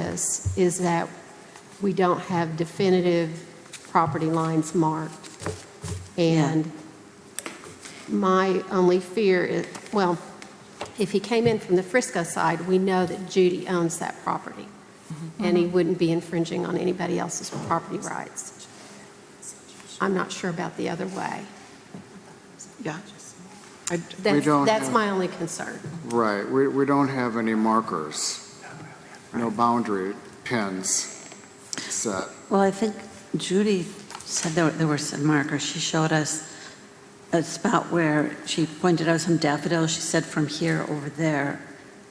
us is that we don't have definitive property lines marked. And my only fear is, well, if he came in from the Frisco side, we know that Judy owns that property, and he wouldn't be infringing on anybody else's property rights. I'm not sure about the other way. Yeah. I- That's- don't That's have- my only concern. Right, we, we don't have any markers, no boundary pins set. Well, I think Judy said there there were some markers. She showed us a spot where she pointed out some daffodils. She said from here over there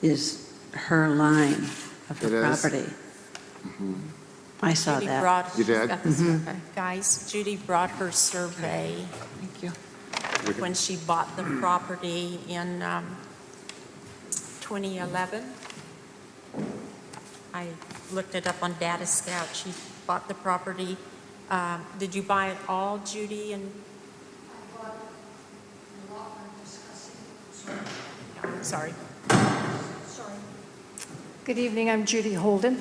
is her line of It her is. property. I saw Mm-hmm. Judy that. brought- You did? got this, okay. Guys, Judy brought her survey Thank you. when she bought the property in um, 2011. I looked it up on Data Scout. She bought the property. Uh, Did you buy it all, Judy? And Sorry. Good evening, I'm Judy Holden.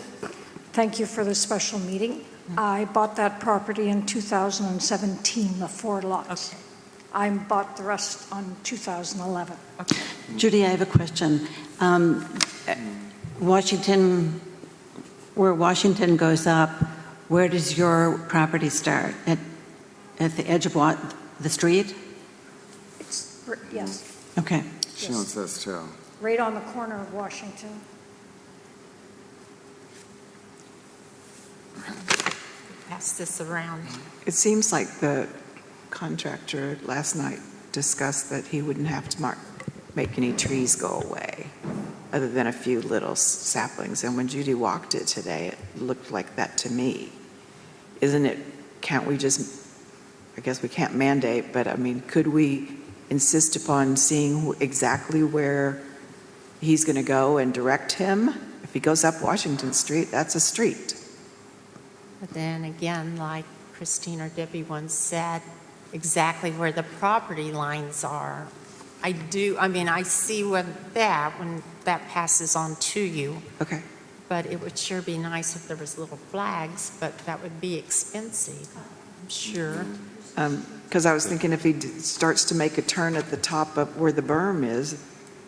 Thank you for this special meeting. I bought that property in 2017, the four lots. Okay. I bought the rest on 2011. Judy, I have a question. Um, Washington, where Washington goes up, where does your property start? At, at the edge of what, the street? It's, r- yes, Okay. She owns this too. right on the corner of Washington. Pass this around. It seems like the contractor last night discussed that he wouldn't have to mark, make any trees go away, other than a few little saplings. And when Judy walked it today, it looked like that to me. Isn't it, can't we just, I guess we can't mandate, but I mean, could we insist upon seeing who- exactly where he's going to go and direct him? If he goes up Washington Street, that's a street. But then again, like Christine or Debbie once said, exactly where the property lines are. I do, I mean, I see when that, when that passes on to you, Okay. but it would sure be nice if there was little flags, but that would be expensive, I'm sure. Because I was thinking if he d- starts to make a turn at the top of where the berm is,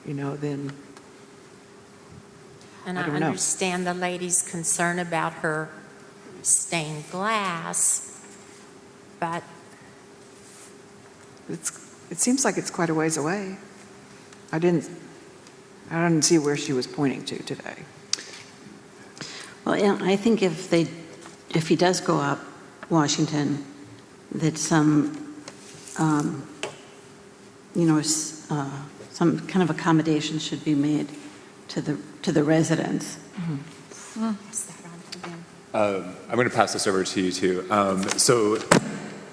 you know, then, And I I don't know. understand the lady's concern about her stained glass, but it's, it seems like it's quite a ways away. I didn't, I didn't see where she was pointing to today. Well, and I think if they, if he does go up Washington, that some, um, you know, s- uh, some kind of accommodation should be made to the, to the residents. is that on to them? Um, I'm going to pass this over to you too. Um, So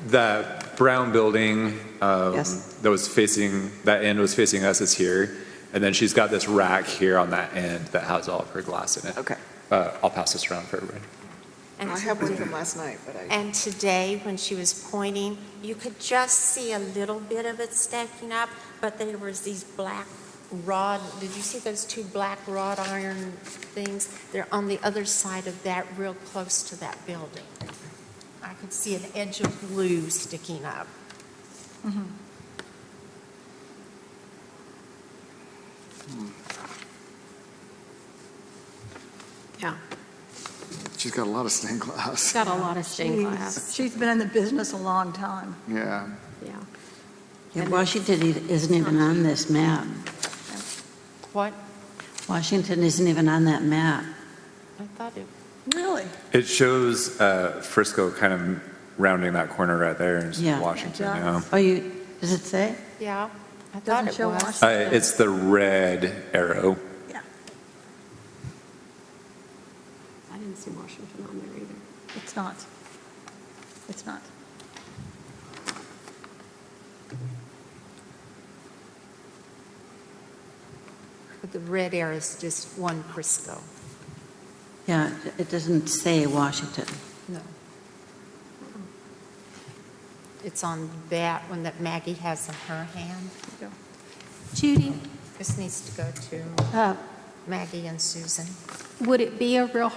that brown building um, Yes. that was facing, that end was facing us is here. And then she's got this rack here on that end that has all of her glass in it. Okay. Uh, I'll pass this around for everybody. And I to have one do- from last night, but I. And today, when she was pointing, you could just see a little bit of it stacking up, but there was these black rod, did you see those two black wrought iron things? They're on the other side of that, real close to that building. I could see an edge of blue sticking up. Yeah, She's got a lot of stained glass. got a lot of stained glass, She's been in the business a long time. Yeah, yeah. Yeah, Washington e- isn't even on this map. What? Washington isn't even on that map. I thought it, Really? It shows uh, Frisco kind of rounding that corner right there Yeah. in Washington. Yeah. yeah. Oh, you, does it say? yeah, I thought Doesn't it show was. Washington. Uh, It's the red arrow. I didn't see Washington on there either. It's not. It's not. But the red arrow is just one Crisco. Yeah, it doesn't say Washington. No. It's on that one that Maggie has in her hand. Judy, This needs to go to uh, Maggie and Susan. would it be a real